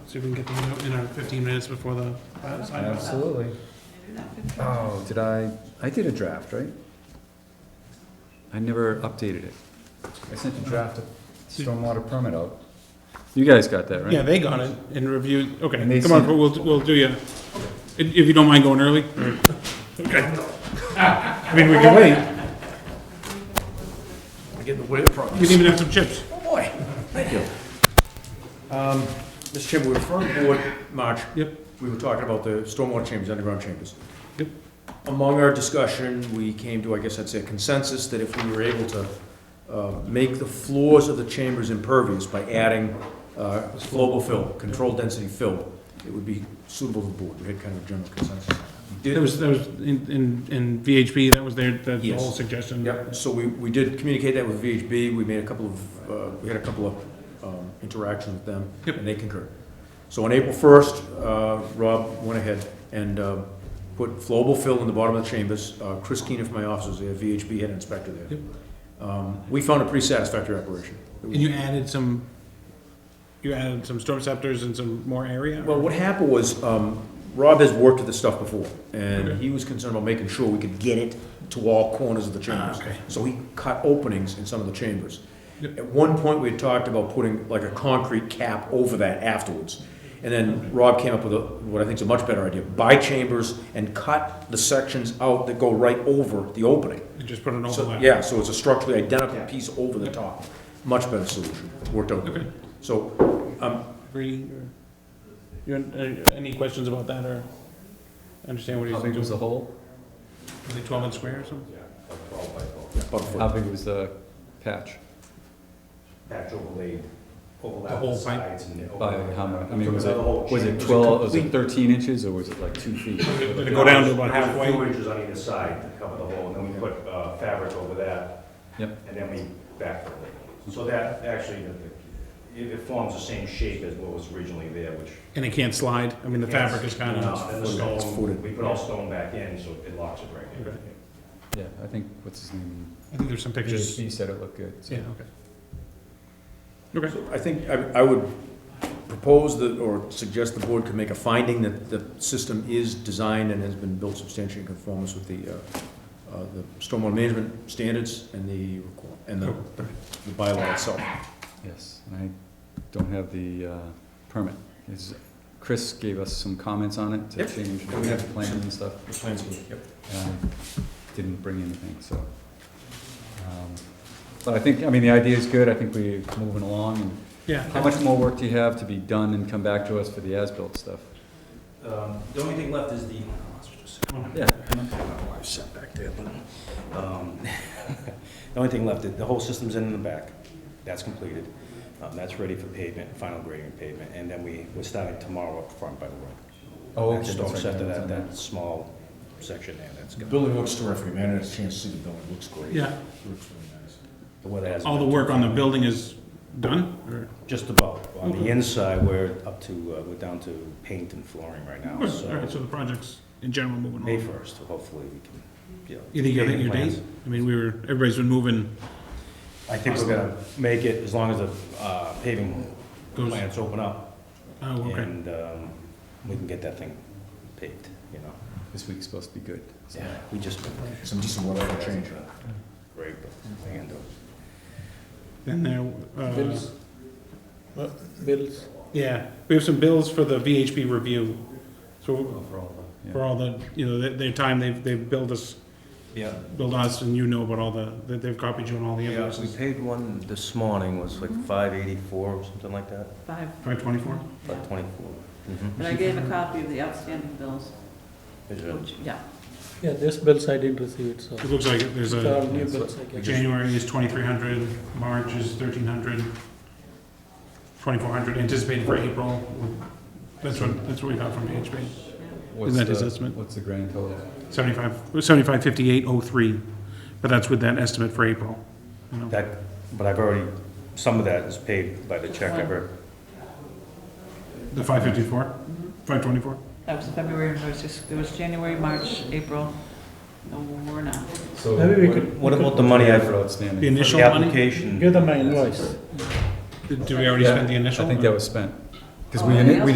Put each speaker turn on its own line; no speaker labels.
See if we can get them out in our fifteen minutes before the uh, sign off.
Absolutely. Oh, did I, I did a draft, right? I never updated it. I sent a draft of stormwater permit out. You guys got that, right?
Yeah, they got it and reviewed,
And they
okay, come on,
sent-
we'll, we'll do you, if if you don't mind going early. Okay. I mean, we can wait,
Getting away from
we can even have some chips.
Oh, boy. Thank you. Um, Mr. Chairman, we were referring to board, March.
Yep.
We were talking about the stormwater chambers, underground chambers.
Yep.
Among our discussion, we came to, I guess I'd say, a consensus that if we were able to uh, make the floors of the chambers impervious by adding uh, global fill, controlled density fill, it would be suitable to the board. We had kind of a general consensus. We
That
did-
was, that was in, in, in VHP, that was their, the the
Yes.
whole suggestion.
Yep, so we, we did communicate that with VHB, we made a couple of, uh, we had a couple of um, interactions with them,
Yep.
and they concurred. So on April 1st, uh, Rob went ahead and um, put flowable fill in the bottom of the chambers. Uh, Chris Keenan from my office was there, VHB head inspector there. Um, We found a pretty satisfactory operation.
And you added some, you added some storm scepters and some more area?
Well, what happened was, um, Rob has worked with this stuff before, and
Okay.
he was concerned about making sure we could get it to all corners of the chambers.
Ah, okay.
So he cut openings in some of the chambers.
Yep.
At one point, we had talked about putting like a concrete cap over that afterwards. And then Rob came up with a, what I think is a much better idea, buy chambers and cut the sections out that go right over the opening.
You Just put an
So,
overlap?
yeah, so it's a structurally identical piece over the top. Much better solution, worked out.
Okay.
So, um,
Brady, or, you, had, uh, any questions about that, or understand what
How
he's
big
doing?
was the hole?
Is it twelve inch square or something?
about a foot.
How big was the patch?
patch overlaid,
The
overlap
whole
the
pipe?
sides and.
By
overlap.
how much? I mean,
Took
was
out
it,
the whole
was it
chamber.
twelve, was it thirteen inches or was it like two feet?
Did it go down to about
There was a few
halfway?
inches on either side to cover the hole, and then we put uh, fabric over that.
Yep.
And then we backfilled it. So that actually, it, it forms the same shape as what was originally there, which.
And it can't slide? I mean, the fabric is kind
No,
of,
And the
It's footed, it's
stone,
footed.
we put all stone back in, so it locks it right
Okay.
there.
Yeah, I think, what's his name?
I think there's some pictures.
He said it looked good. so.
Yeah, okay. Okay,
I think I I would propose that, or suggest the board could make a finding that the system is designed and has been built substantially in conformance with the, uh, uh, the stormwater management standards and the, requ- and the the bylaw itself.
Yes, and I don't have the uh, permit. Is- Chris gave us some comments on it to
Yep.
change
And we
the
have-
plan and stuff.
The plans were- yep.
and I Didn't bring anything, so. um, But I think, I mean, the idea is good. I think we're moving along. And How
yeah.
much more work do you have to be done and come back to us for the as-built stuff?
Um, The only thing left is the.
Yeah.
My wife's sat back there, but, um, the only thing left, the whole system's in the back. That's completed. Um, That's ready for pavement, final grading and pavement, and then we, we're starting tomorrow up front by the road.
Oh, okay,
Just
that's right,
after
that's
that,
on
that small section there, that's
The
good.
building looks terrific, man, I had a chance to see the building, it looks great.
Yeah,
Looks really nice.
The weather hasn't
all the
been
work
too
on the
bad.
building is done, or?
Just about. On the
Okay.
inside, we're up to, uh, we're down to paint and flooring right now,
Good, All right,
Oh, so
so the project's in general moving
May
along.
first, hopefully we can, you know.
You think you'll hit
paving
your
plans.
date? I mean, we were, everybody's been moving,
I think we're gonna make it as long as the uh, paving
Goes-
plants open up
oh, okay.
and um, we can get that thing paved, you know?
This week's supposed to be good. so.
Yeah, we just.
Some decent weather for change.
Great, but we can do it.
Then there, uh,
Bills. Bills.
yeah, we have some bills for the VHP review. So for all the, you know, their, their time, they've, they've billed us,
Yeah,
billed us, and you know about all the, that they've copied you on all the
yeah, we
invoices.
paid one this morning, was like five eighty-four or something like that,
Five,
Five twenty-four?
yeah.
five
Mm-hmm.
twenty-four.
But I gave a copy of the outstanding bills, which, yeah.
Yeah, this bills I didn't receive it, so.
It looks like there's
It's all
a,
new bills, I guess.
January is twenty-three hundred, March is thirteen hundred, twenty-four hundred anticipated for April. That's what, that's what we got from VHP.
What's
that his
the-
estimate?
What's the grand total?
Seventy-five, seventy-five fifty-eight oh three, but that's with that estimate for April. you know.
That, but I've already, some of that is paid by the check I've already
The five fifty-four, five twenty-four?
That was February, and there was just, there was January, March, April, no more now.
So
Maybe we could-
What about the money I've-
For outstanding.
The initial
The
money?
application.
Give them my invoice.
Did did we already
Yeah,
spend the initial?
I think
or-
that was spent. Because
Oh,
we,
yeah.
ini- we